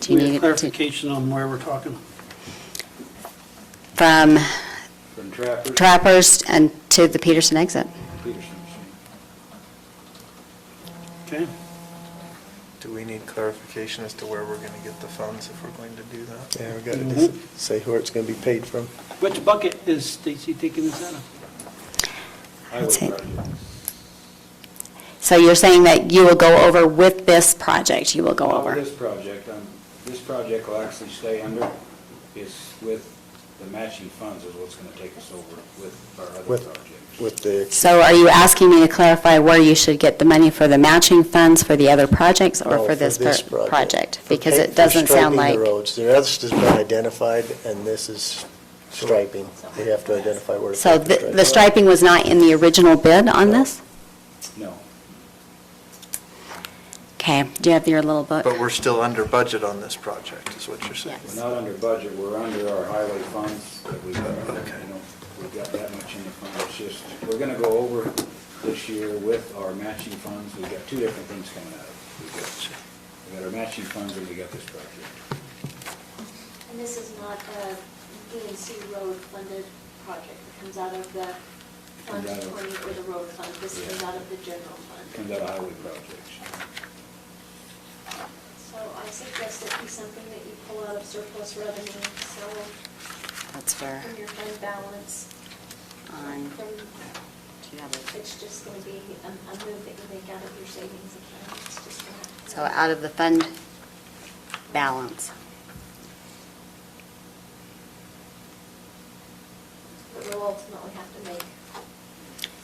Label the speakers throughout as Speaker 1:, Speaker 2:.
Speaker 1: Do
Speaker 2: We
Speaker 1: you
Speaker 2: have
Speaker 1: need it to,
Speaker 2: clarification on where we're talking.
Speaker 1: from
Speaker 3: From Trappers,
Speaker 1: Trappers and to the Peterson exit?
Speaker 3: Peterson's.
Speaker 2: Okay?
Speaker 4: Do we need clarification as to where we're going to get the funds if we're going to do that?
Speaker 5: Yeah, we got
Speaker 6: Mm-hmm.
Speaker 5: to say where it's going to be paid from.
Speaker 2: Which bucket is Stacy taking this out of?
Speaker 3: Highway
Speaker 1: That's it.
Speaker 3: project.
Speaker 1: So you're saying that you will go over with this project, you will go
Speaker 3: Well,
Speaker 1: over?
Speaker 3: This project, um, this project will actually stay under, is with the matching funds is what's gonna take us over with our other
Speaker 5: With-
Speaker 3: projects.
Speaker 5: With the,
Speaker 1: So are you asking me to clarify where you should get the money for the matching funds for the other projects or
Speaker 5: no,
Speaker 1: for this per-
Speaker 5: Oh, project.
Speaker 1: project?
Speaker 5: For
Speaker 1: Because
Speaker 5: pa-
Speaker 1: it
Speaker 5: for
Speaker 1: doesn't sound
Speaker 5: Striping
Speaker 1: like,
Speaker 5: the roads. The rest has been identified, and this is striping. We have to identify where to
Speaker 1: so
Speaker 5: put the
Speaker 1: the the
Speaker 5: striping.
Speaker 1: striping was not in the original bid on
Speaker 5: No.
Speaker 1: this?
Speaker 3: No,
Speaker 1: Okay, do you have your little book?
Speaker 4: But we're still under budget on this project, is what you're saying?
Speaker 3: we're not under budget, we're under our highway funds that we, you
Speaker 4: Okay.
Speaker 3: know, we've got that much in the fund, it's just, we're gonna go over this year with our matching funds, we've got two different things coming out of it. We've got, we've got our matching funds and we got this project.
Speaker 7: And this is not a DNC road funded project. It comes out of the fund
Speaker 3: Comes out of-
Speaker 7: 20 or the road fund. This comes out of the general
Speaker 3: It
Speaker 7: fund.
Speaker 3: Comes out of highway projects.
Speaker 7: So I suggest it be something that you pull out of surplus revenue, so
Speaker 1: That's fair.
Speaker 7: from your fund balance.
Speaker 1: On-
Speaker 7: From,
Speaker 1: do you have it?
Speaker 7: it's just going to be a a move that you make out of your savings account. It's just gonna have to-
Speaker 1: So out of the fund balance.
Speaker 7: But we'll ultimately have to make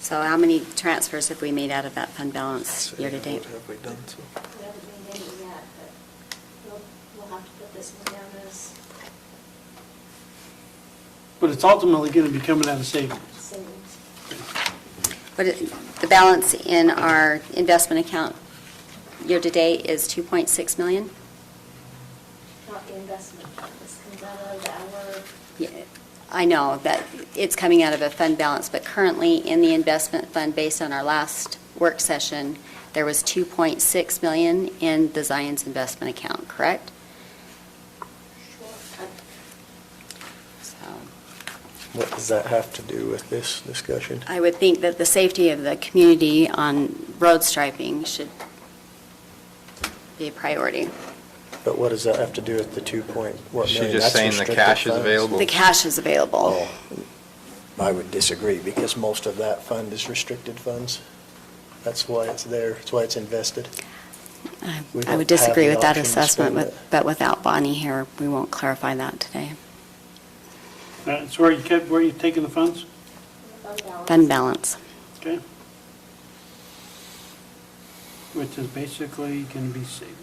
Speaker 1: So how many transfers have we made out of that fund balance
Speaker 4: So,
Speaker 1: year to
Speaker 4: yeah,
Speaker 1: date?
Speaker 4: What have we done so?
Speaker 7: We haven't made any yet, but we'll, we'll have to put this one down as
Speaker 2: But it's ultimately going to be coming out of savings.
Speaker 7: savings.
Speaker 1: But it- the balance in our investment account year to date is 2.6 million?
Speaker 7: Not the investment fund, this comes out of our,
Speaker 1: Yeah, I know that it's coming out of a fund balance, but currently in the investment fund, based on our last work session, there was 2.6 million in the Zions investment account, correct? So.
Speaker 5: What does that have to do with this discussion?
Speaker 1: I would think that the safety of the community on road striping should be a priority.
Speaker 5: But what does that have to do with the two point, what
Speaker 6: She's
Speaker 5: million?
Speaker 6: just
Speaker 5: That's
Speaker 6: saying the
Speaker 5: restricted
Speaker 6: cash is
Speaker 5: funds.
Speaker 6: available.
Speaker 1: The cash is available.
Speaker 5: Oh, I would disagree, because most of that fund is restricted funds. That's why it's there, that's why it's invested.
Speaker 1: I
Speaker 5: we
Speaker 1: I would
Speaker 5: don't have
Speaker 1: disagree
Speaker 5: the
Speaker 1: with that
Speaker 5: option to
Speaker 1: assessment,
Speaker 5: spend
Speaker 1: with-
Speaker 5: it.
Speaker 1: but without Bonnie here, we won't clarify that today.
Speaker 2: That's Uh, where you kept, where you taking the funds?
Speaker 7: fund balance.
Speaker 1: Fund balance.
Speaker 2: Okay? Which is basically going to be savings.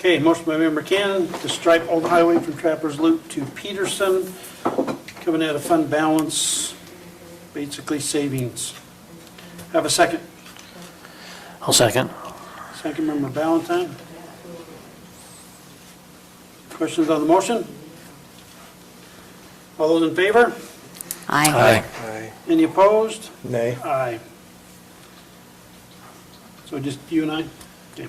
Speaker 2: Okay, motion by member Cannon to stripe Old Highway from Trappers Loop to Peterson, coming out of fund balance, basically savings. Have a second.
Speaker 8: I'll second.
Speaker 2: Second member Valentine. Questions on the motion? All those in favor?
Speaker 1: Aye.
Speaker 4: Aye.
Speaker 2: Any opposed?
Speaker 5: Nay?
Speaker 2: Aye. So just you and I? Okay.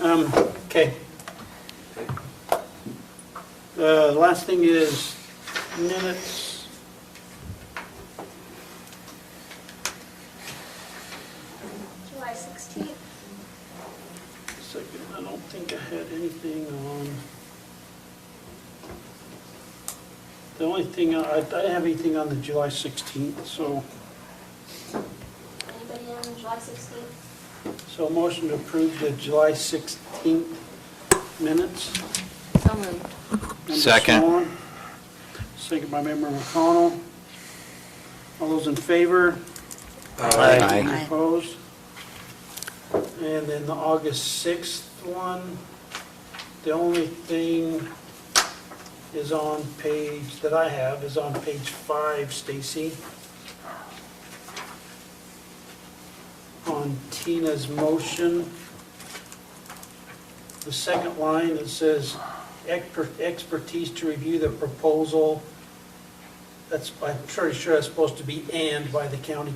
Speaker 2: Um, okay. Uh, The last thing is minutes.
Speaker 7: July 16th,
Speaker 2: Second, I don't think I had anything on. The only thing, I, I didn't have anything on the July 16th, so,
Speaker 7: anybody on July 16th?
Speaker 2: so motion to approve the July 16th minutes.
Speaker 7: So moved.
Speaker 2: Member
Speaker 6: Second.
Speaker 2: Swan, Second by member McConnell. All those in favor?
Speaker 6: Aye.
Speaker 1: Aye.
Speaker 2: Opposed? And then the August 6th one, the only thing is on page, that I have, is on page five, Stacy. On Tina's motion, the second line, it says "Exper- expertise to review the proposal That's, I'm pretty sure that's supposed to be and by the county